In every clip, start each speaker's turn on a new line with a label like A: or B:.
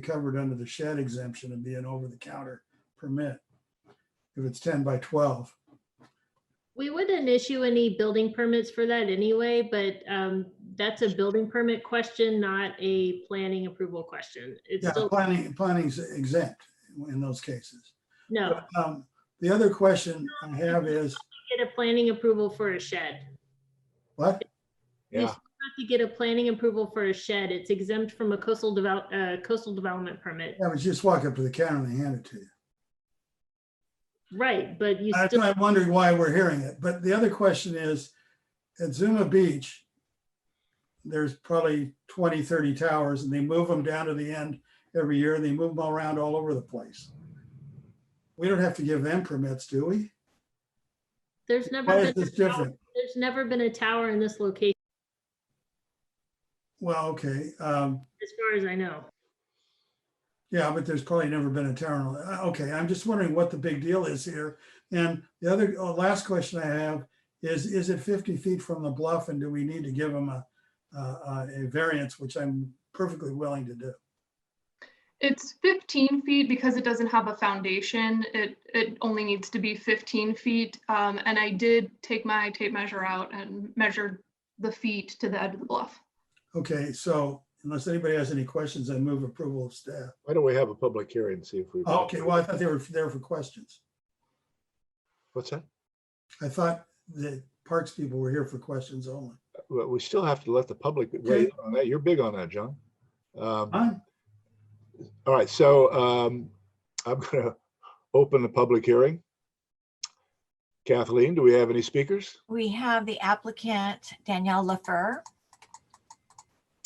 A: covered under the shed exemption and be an over-the-counter permit. If it's ten by twelve,
B: We wouldn't issue any building permits for that anyway, but um, that's a building permit question, not a planning approval question. It's
A: yeah,
B: still,
A: planning, planning's exempt in those cases.
B: no,
A: Um, The other question I have is,
B: get a planning approval for a shed.
A: what?
B: You still Have to get a planning approval for a shed. It's exempt from a coastal develop, uh, coastal development permit.
A: I was just walk up to the counter and they hand it to you.
B: Right, but you
A: That's
B: still,
A: why I'm wondering why we're hearing it. But the other question is, at Zuma Beach, there's probably 20, 30 towers and they move them down to the end every year and they move them around all over the place. We don't have to give them permits, do we?
B: there's
A: Why
B: never
A: is
B: been,
A: this
B: a tower-
A: different?
B: there's never been a tower in this location,
A: Well, okay, um,
B: as far as I know.
A: yeah, but there's probably never been a town, uh, okay, I'm just wondering what the big deal is here. And the other, uh, last question I have is, is it fifty feet from the bluff and do we need to give them a, a, a variance, which I'm perfectly willing to do?
C: It's fifteen feet because it doesn't have a foundation. It, it only needs to be fifteen feet. Um, and I did take my tape measure out and measured the feet to the edge of the bluff.
A: Okay, so unless anybody has any questions, I move approval of staff. Oh,
D: Why don't we have a public hearing and see if we.
A: Okay, well, I thought they were there for questions.
D: What's that?
A: I thought the parks people were here for questions only.
D: Well, we still have to let the public, weigh in on that. you're big on that, John. Um,
A: Huh?
D: All right, so um, I'm gonna open the public hearing. Kathleen, do we have any speakers?
E: We have the applicant Danielle Lefer.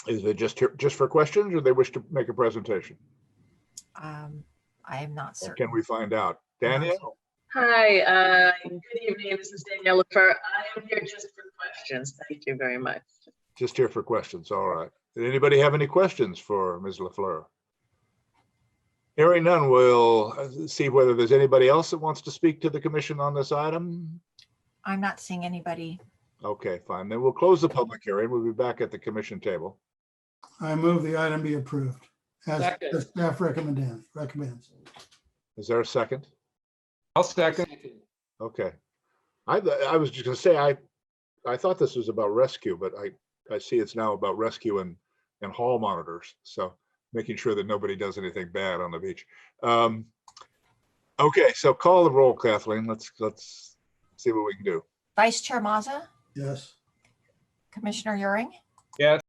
D: Is it just, here- just for questions or they wish to make a presentation?
E: Um, I am not
D: Or
E: certain.
D: Can we find out? Danielle,
F: Hi, uh, good evening. This is Danielle Lefer. I am here just for questions. Thank you very much.
D: just here for questions, all right. Did anybody have any questions for Ms. LaFleur? Hearing none, we'll uh, see whether there's anybody else that wants to speak to the commission on this item.
E: I'm not seeing anybody.
D: Okay, fine. Then we'll close the public hearing. We'll be back at the commission table.
A: I move the item be approved as
G: Second.
A: the staff recommend, recommends.
D: Is there a second?
G: I'll second.
D: Okay. I, th- I was just gonna say, I, I thought this was about rescue, but I, I see it's now about rescue and, and hall monitors. So making sure that nobody does anything bad on the beach. Um, Okay, so call the roll, Kathleen. Let's, let's see what we can do.
E: Vice Chair Mazza,
A: Yes.
E: Commissioner Euring,
G: Yes.